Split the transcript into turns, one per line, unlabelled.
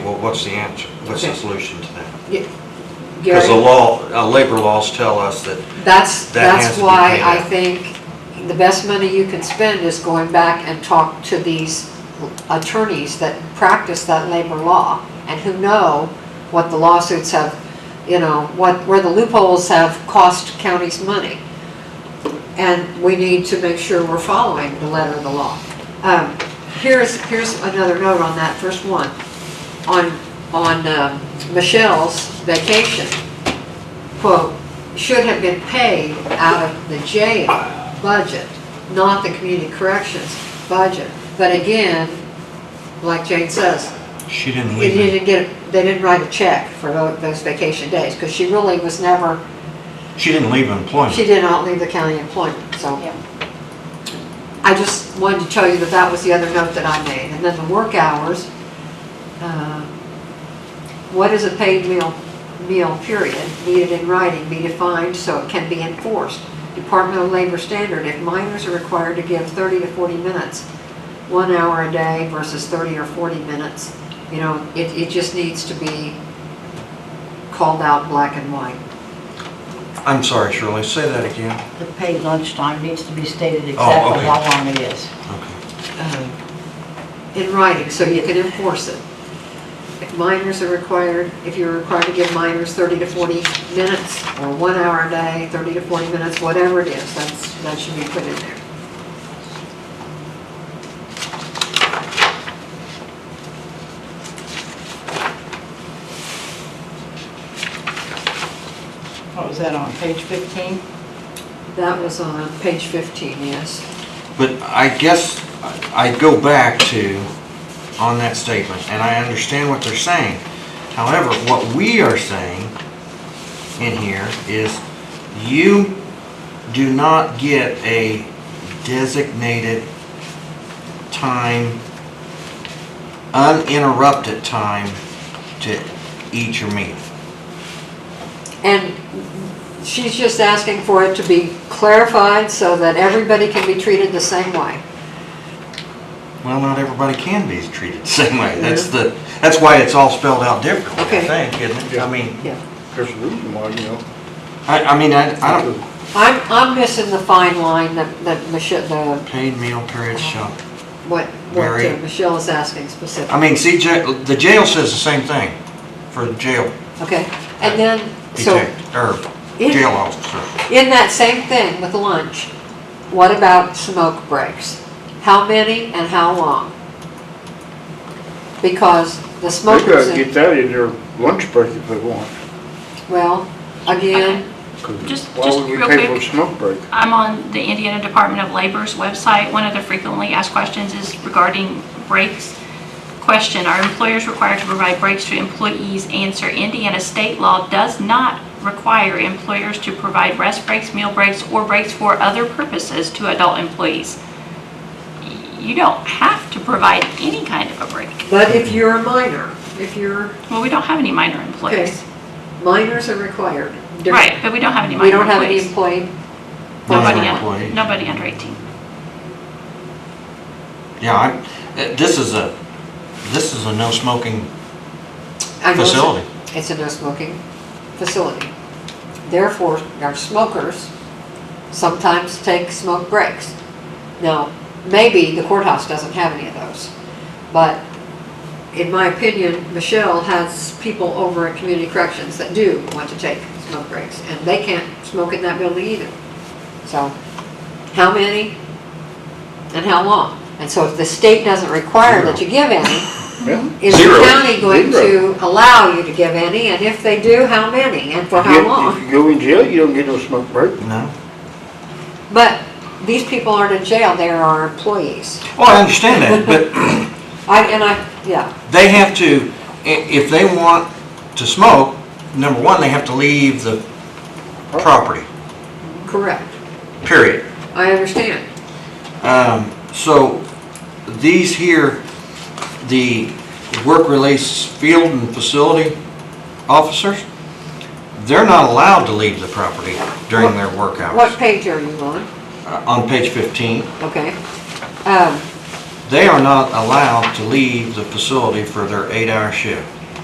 what's the answer? What's the solution to that?
Y-
Because the
Gary,
law, uh, labor laws tell us that,
that's,
that has
that's
to be
why
paid
I
out.
think the best money you can spend is going back and talk to these attorneys that practice that labor law and who know what the lawsuits have, you know, what, where the loopholes have cost counties money. And we need to make sure we're following the letter of the law. Um, Here's, here's another note on that first one. On, on um, Michelle's vacation, quote, should have been paid out of the jail budget, not the community corrections budget. But again, like Jane says,
she didn't
they
leave it.
didn't get, they didn't write a check for tho- those vacation days, because she really was never,
She didn't leave
she
employment.
did not leave the county employment, so.
Yeah.
I just wanted to tell you that that was the other note that I made. And then the work hours, uh, what is a paid meal, meal period needed in writing be defined so it can be enforced. Department of Labor standard, if minors are required to give 30 to 40 minutes, one hour a day versus 30 or 40 minutes, you know, it, it just needs to be called out black and white.
I'm sorry, Shirley, say that again.
The paid lunchtime needs to be stated exactly
okay.
how long it is.
Okay.
um, in writing, so you can enforce it. If minors are required, if you're required to give minors 30 to 40 minutes, or one hour a day, 30 to 40 minutes, whatever it is, that's, that should be put in there.
What was Oh, that on, page 15?
That was on page 15, yes.
But I guess I I go back to, on that statement, and I understand what they're saying. However, what we are saying in here is you do not get a designated time, uninterrupted time to eat your meal.
And she's just asking for it to be clarified so that everybody can be treated the same way.
Well, not everybody can be treated the same way. That's the, that's why it's all spelled out differently,
Okay.
I think, isn't it? I mean.
Yeah.
There's a reason why, you know.
I, I mean, I, I don't,
I'm, I'm missing the fine line that, that Michelle, the,
paid meal period shall,
what, what
Mary.
uh, Michelle is asking specifically.
I mean, CJ, the jail says the same thing for the jail
Okay, and then, so
detective, or
Yeah.
jail officer.
in that same thing with lunch, what about smoke breaks? How many and how long? Because the
They
smokers,
gotta get that in their lunch break if they want.
well, again,
'cause
Just-
Why
just
would we
real
pay for a
quick.
smoke break?
I'm on the Indiana Department of Labor's website. One of the frequently asked questions is regarding breaks. Question, are employers required to provide breaks to employees? Answer, Indiana state law does not require employers to provide rest breaks, meal breaks, or breaks for other purposes to adult employees. You don't have to provide any kind of a break.
but if you're a minor, if you're,
Well, we don't have any minor
okay,
employees.
minors are required. They're-
Right, but we don't have any
We
minor
don't have any
employees.
employee.
Nobody
Minor
un-
employees.
Nobody under 18.
Yeah, I, eh, this is a, this is a no smoking
I know it's a-
Facility.
It's a no smoking facility. Therefore, our smokers sometimes take smoke breaks. Now, maybe the courthouse doesn't have any of those, but in my opinion, Michelle has people over at Community Corrections that do want to take smoke breaks, and they can't smoke in that building either. So, how many and how long? And so if the state doesn't require that you give any,
Yeah.
is the
Zero.
county going
Zero.
to allow you to give any, and if they do, how many, and for how
You- If
long?
you go in jail, you don't get no smoke break.
no?
But these people aren't in jail, they are our employees.
Well, I understand that, but
I, and I, yeah,
they have to, i- if they want to smoke, number one, they have to leave the property,
correct,
period.
I understand.
Um, so these here, the work release field and facility officers, they're not allowed to leave the property during their work
What
hours.
page are you on?
Uh, On page fifteen,
Okay. Um,
they are not allowed to leave the facility for their eight-hour shift.